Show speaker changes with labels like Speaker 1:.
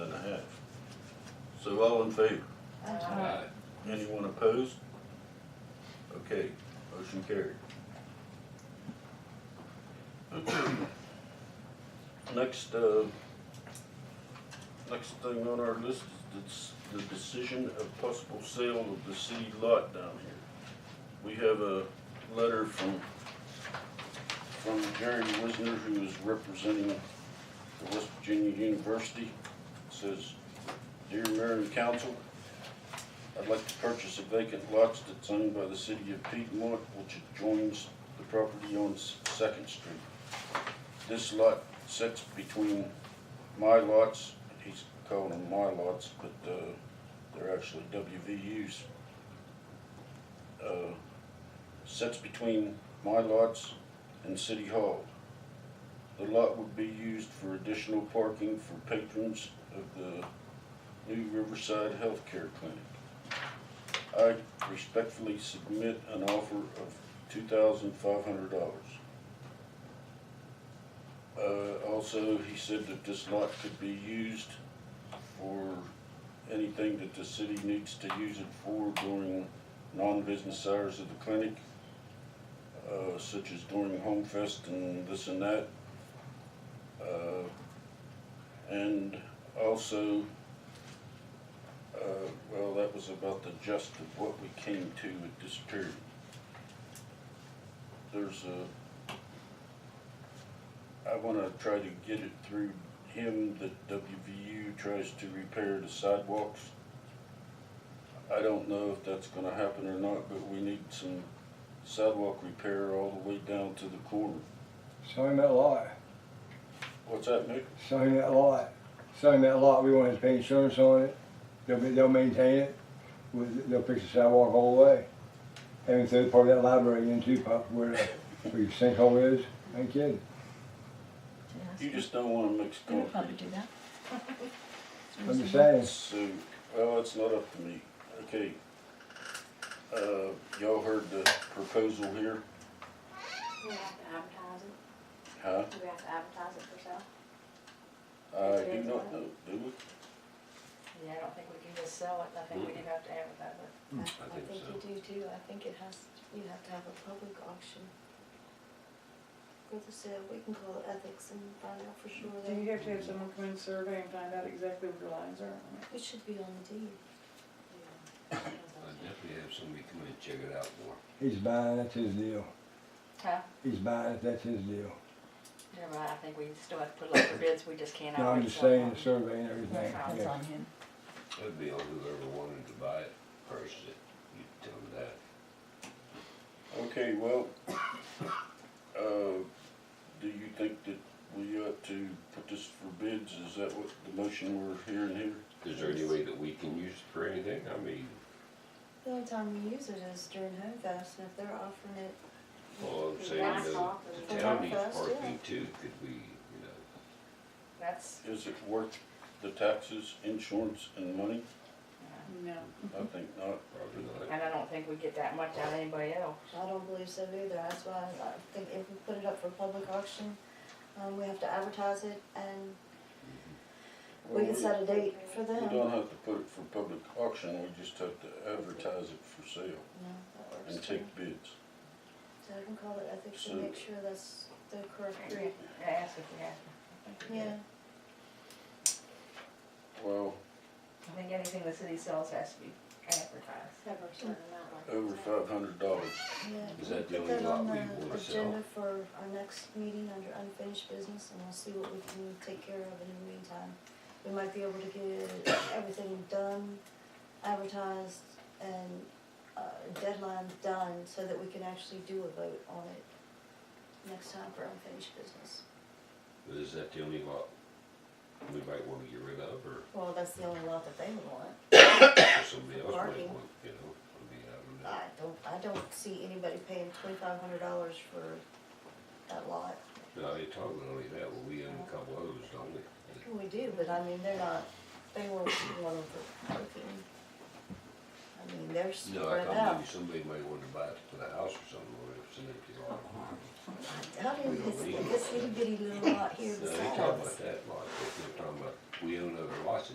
Speaker 1: So all in favor?
Speaker 2: Aye.
Speaker 1: Anyone opposed? Okay, motion carried. Next, uh, next thing on our list is the the decision of possible sale of the city lot down here. We have a letter from, from Jerry Wisner, who is representing the West Virginia University. It Says, Dear Mayor and Council, I'd like to purchase a vacant lot that's owned by the city of Piedmont, which adjoins the property on S- Second Street. This lot sits between my lots, he's calling them my lots, but, uh, they're actually WVUs. Uh, Sits between my lots and City Hall. The lot would be used for additional parking for patrons of the new Riverside Healthcare Clinic. I respectfully submit an offer of two thousand five hundred dollars. Uh, also, he said that this lot could be used for anything that the city needs to use it for during non-business hours of the clinic, uh, such as during Home Fest and this and that. Uh, and also, uh, well, that was about the gist of what we came to at this period. There's a, I wanna try to get it through him that WVU tries to repair the sidewalks. I don't know if that's gonna happen or not, but we need some sidewalk repair all the way down to the corner.
Speaker 3: Show him that lot.
Speaker 1: What's that, Nick?
Speaker 3: Show him that lot. Show him that lot. We want to pay insurance on it. They'll, be- they'll maintain it. We- They'll fix the sidewalk all the way. And third part of that library in too, Pop, where, where your sinkhole is. Ain't kidding.
Speaker 1: You just don't wanna mix
Speaker 2: They would probably
Speaker 1: concrete.
Speaker 2: do that.
Speaker 3: I'm just saying.
Speaker 1: So, well, it's not up to me. Okay. Uh, y'all heard the proposal here,
Speaker 4: We have to advertise it,
Speaker 1: huh?
Speaker 4: do we have to advertise it for sale?
Speaker 1: I do not know, do we?
Speaker 5: Yeah, I don't think we can just sell it, I think we do have to advertise it.
Speaker 6: I think so.
Speaker 7: you do too, I think it has, you have to have a public auction for the sale, we can call ethics and find out for sure.
Speaker 8: Do you have to have someone come in survey and find out exactly what your lines are?
Speaker 7: It should be on the deed.
Speaker 6: I'd definitely have somebody come in and check it out more.
Speaker 3: He's buying, that's his deal.
Speaker 5: Huh?
Speaker 3: He's buying it, that's his deal.
Speaker 5: Never mind, I think we still have to put up for bids, we just can't
Speaker 3: No, I'm
Speaker 5: already
Speaker 3: just
Speaker 5: sell
Speaker 3: saying,
Speaker 5: one.
Speaker 3: the survey and everything.
Speaker 2: It's
Speaker 3: Yeah.
Speaker 2: on him.
Speaker 6: It'd be on whoever wanted to buy it, purchase it, you tell them that.
Speaker 1: Okay, well, uh, do you think that we ought to put this for bids? Is that what the motion we're hearing here?
Speaker 6: Is there any way that we can use it for anything? I mean,
Speaker 7: The only time we use it is during Home Fest, and if they're offering it,
Speaker 6: well, I'm saying
Speaker 4: Last
Speaker 6: the,
Speaker 4: off
Speaker 6: the
Speaker 4: and-
Speaker 6: town needs
Speaker 7: First, yeah.
Speaker 6: parking too, could we, you know,
Speaker 5: That's,
Speaker 1: Is it worth the taxes, insurance, and money?
Speaker 8: No.
Speaker 7: Mm-hmm.
Speaker 1: I think not.
Speaker 6: probably not.
Speaker 5: and I don't think we get that much out of anybody else.
Speaker 7: I don't believe so either, that's why I think if we put it up for public auction, um, we have to advertise it and we can set a date for
Speaker 1: We
Speaker 7: them.
Speaker 1: don't have to put it for public auction, we just have to advertise it for sale
Speaker 7: No, that works
Speaker 1: and
Speaker 7: too.
Speaker 1: take bids.
Speaker 7: So I can call it ethics
Speaker 1: So-
Speaker 7: and make sure that's the correct
Speaker 5: We
Speaker 7: group.
Speaker 5: Ask if we have to.
Speaker 7: Yeah,
Speaker 1: Well,
Speaker 5: I think anything the city sells has to be advertised.
Speaker 4: Have a certain amount like.
Speaker 1: over five hundred dollars.
Speaker 7: yeah.
Speaker 6: Is that the
Speaker 7: Put
Speaker 6: only
Speaker 7: that
Speaker 6: lot
Speaker 7: on
Speaker 6: we
Speaker 7: the
Speaker 6: wanna sell?
Speaker 7: agenda for our next meeting under unfinished business and we'll see what we can take care of in the meantime. We might be able to get everything done, advertised and, uh, deadline done so that we can actually do a vote on it next time for unfinished business.
Speaker 6: But is that the only lot we might wanna get rid of, or
Speaker 7: Well, that's the only lot that they would want.
Speaker 6: somebody else might
Speaker 7: Parking.
Speaker 6: want, you know, I mean, I don't know.
Speaker 7: I don't, I don't see anybody paying twenty-five hundred dollars for that lot.
Speaker 6: No, you're talking only that, well, we own a couple others, don't we?
Speaker 7: We do, but I mean, they're not, they weren't one of the parking. I mean, they're
Speaker 6: No, I
Speaker 7: spread
Speaker 6: thought
Speaker 7: out.
Speaker 6: maybe somebody might want to buy it to put a house or something, or it's an empty lot.
Speaker 7: I doubt
Speaker 6: we
Speaker 7: it,
Speaker 6: don't
Speaker 7: this,
Speaker 6: need it.
Speaker 7: this little bitty little lot here
Speaker 6: No, they
Speaker 7: beside
Speaker 6: talk
Speaker 7: us.
Speaker 6: about that lot, but they're talking about, we own other lots